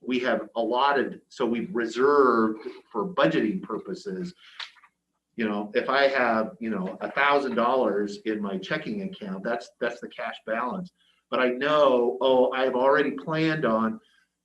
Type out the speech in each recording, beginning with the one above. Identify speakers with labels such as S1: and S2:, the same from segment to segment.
S1: we have allotted, so we've reserved for budgeting purposes. You know, if I have, you know, a thousand dollars in my checking account, that's, that's the cash balance. But I know, oh, I've already planned on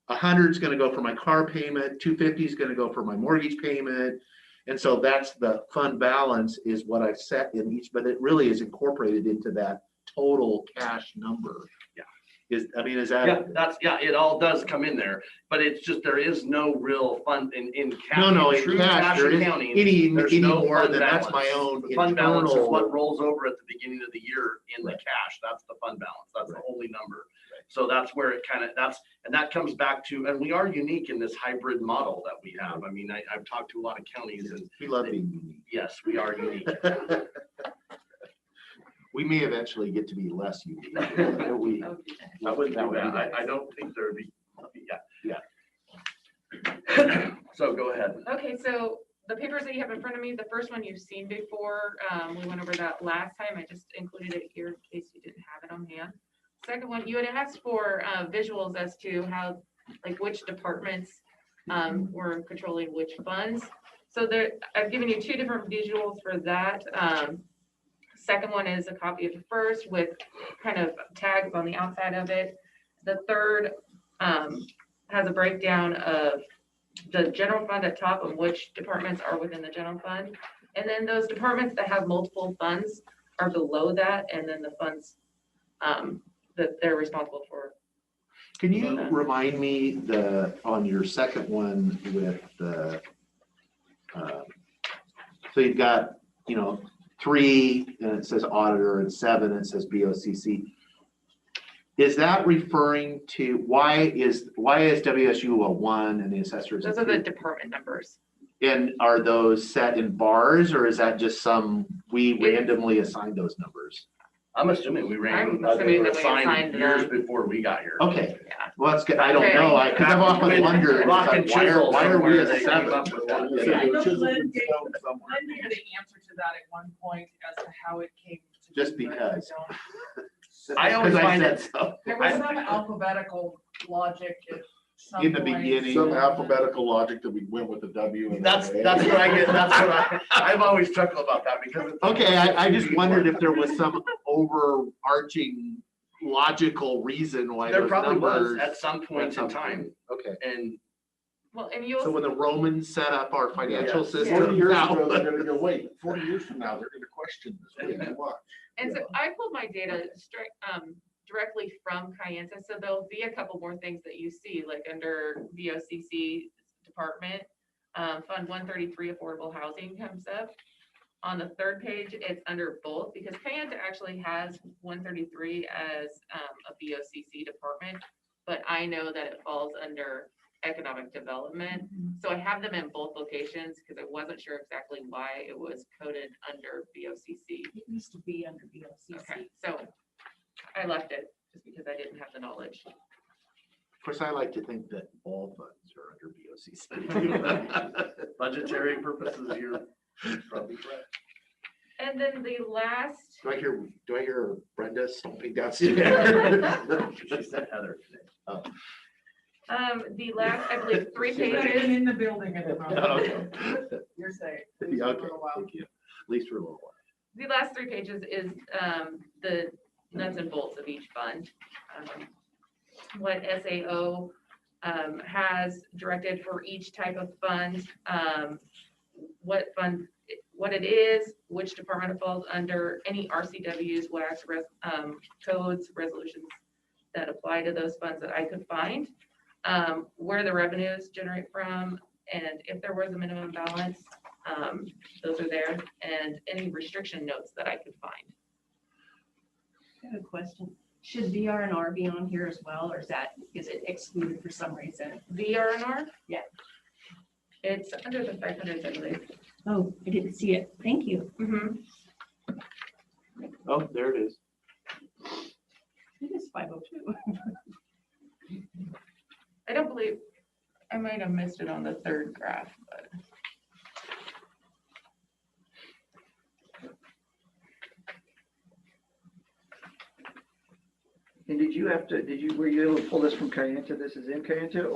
S1: a hundred's gonna go for my car payment, two fifty's gonna go for my mortgage payment. And so that's the fund balance is what I've set in each, but it really is incorporated into that total cash number.
S2: Yeah.
S1: Is, I mean, is
S2: Yeah,
S1: that,
S2: that's, yeah, it all does come in there, but it's just, there is no real fund in, in. ca-
S1: No, no,
S2: in
S1: in
S2: true
S1: cash,
S2: cash
S1: there is-
S2: accounting,
S1: any,
S2: there's
S1: any
S2: no
S1: more
S2: fund
S1: than that's my
S2: balance.
S1: own
S2: The fund balance is what
S1: internal.
S2: rolls over at the beginning of the year in the
S1: Right.
S2: cash. That's the fund balance. That's the only number.
S1: Right.
S2: So that's where it kind of, that's, and that comes back to, and we are unique in this hybrid model that we have. I mean, I, I've talked to a lot of counties and
S1: We love being
S2: yes, we are unique.
S1: unique. We may eventually get to be less unique. but we-
S2: I wouldn't
S1: that
S2: do
S1: would be
S2: that.
S1: nice.
S2: I, I don't think there'd be, yeah. So go ahead.
S3: Okay, so the papers that you have in front of me, the first one you've seen before, um, we went over that last time, I just included it here in case you didn't have it on hand. Second one, you had asked for, uh, visuals as to how, like which departments, um, were controlling which funds. So there, I've given you two different visuals for that, um, second one is a copy of the first with kind of tags on the outside of it. The third, um, has a breakdown of the general fund at top of which departments are within the general fund. And then those departments that have multiple funds are below that, and then the funds um, that they're responsible for.
S1: Can you remind me the, on your second one with the, um, so you've got, you know, three, and it says auditor, and seven, it says BOCC. Is that referring to, why is, why is WSU a one and the assessors? a
S3: Those are
S1: three?
S3: the department numbers.
S1: And are those set in bars or is that just some, we
S3: Yeah.
S1: randomly assign those numbers?
S2: I'm assuming we ran,
S3: I'm
S2: uh, they
S3: assuming
S2: were
S3: that we
S2: assigned
S3: assigned
S2: years
S3: them.
S2: before we got here.
S1: Okay,
S3: Yeah.
S1: well, that's good. I don't
S3: Okay.
S1: know. I, cause I've often wondered, it's
S2: Rock
S1: like,
S2: and
S1: why are,
S2: chisel
S1: why are we
S2: somewhere
S1: a
S2: they came
S1: seven?
S2: up with that.
S1: Yeah.
S4: Yeah, I know
S1: Chisel
S4: Lynn
S1: and
S4: gave-
S1: stone somewhere.
S4: I knew the answer to that at one point as to how it came. to be,
S1: Just
S4: but I
S1: because.
S4: don't-
S2: I always
S1: 'Cause
S2: find
S1: said
S2: it-
S1: so.
S4: There was some alphabetical logic at some
S1: In the
S4: point.
S1: beginning.
S5: Some alphabetical logic that we went with the W. and
S2: That's,
S5: the A.
S2: that's what I get, that's what I, I've always chuckled about that because. it's-
S1: Okay, I, I just wondered if there was some overarching logical reason why
S2: There
S1: those
S2: probably was
S1: numbers.
S2: at some
S1: went
S2: point in
S1: up.
S2: time
S1: Okay,
S2: and
S3: Well, and
S1: so
S3: you'll,
S1: when the Romans set up our financial
S2: Yeah.
S1: system.
S5: Forty years
S1: that
S5: ago,
S1: was-
S5: they're gonna go, wait, forty years from now, they're gonna question this. What do you want?
S3: and so I pulled my data straight, um, directly from Kyanza, so there'll be a couple more things that you see, like under VOCC department. Um, Fund one thirty-three affordable housing comes up. On the third page, it's under both because Kayanta actually has one thirty-three as um, a BOCC department. But I know that it falls under economic development. So I have them in both locations because I wasn't sure exactly why it was coded under BOCC.
S6: It used to be under
S3: Okay,
S6: BOCC.
S3: so I left it just because I didn't have the knowledge.
S1: Of course, I like to think that all funds are under BOCC.
S2: budgetary purposes, you're probably correct.
S3: And then the last,
S1: Do I hear, do I hear Brenda stomping downstairs?
S2: She said Heather today.
S3: um, the last, I believe, three
S1: She's ready.
S3: pages.
S4: Getting in the building at the moment.
S1: Okay.
S4: You're safe.
S1: Yeah,
S4: For a
S1: okay,
S4: little while.
S1: thank you. At least for a little while.
S3: the last three pages is um, the nuts and bolts of each fund. um, What SAO um, has directed for each type of fund, um, what fund, what it is, which department it falls under, any RCWs, WACs, res- um, codes, resolutions that apply to those funds that I could find, um, where the revenues generate from, and if there was a minimum balance, um, those are there, and any restriction notes that I could find.
S6: I have a question. Should VR and R be on here as well, or is that, is it excluded for some reason?
S3: VRNR?
S6: Yeah.
S3: It's under the five hundred, I believe.
S6: Oh, I didn't see it. Thank you.
S3: Mhm.
S1: Oh, there it is.
S6: It is 502.
S3: I don't believe, I might have missed it on the third graph, but.
S7: And did you have to, did you, were you able to pull this from Kayenta? This is in Kayenta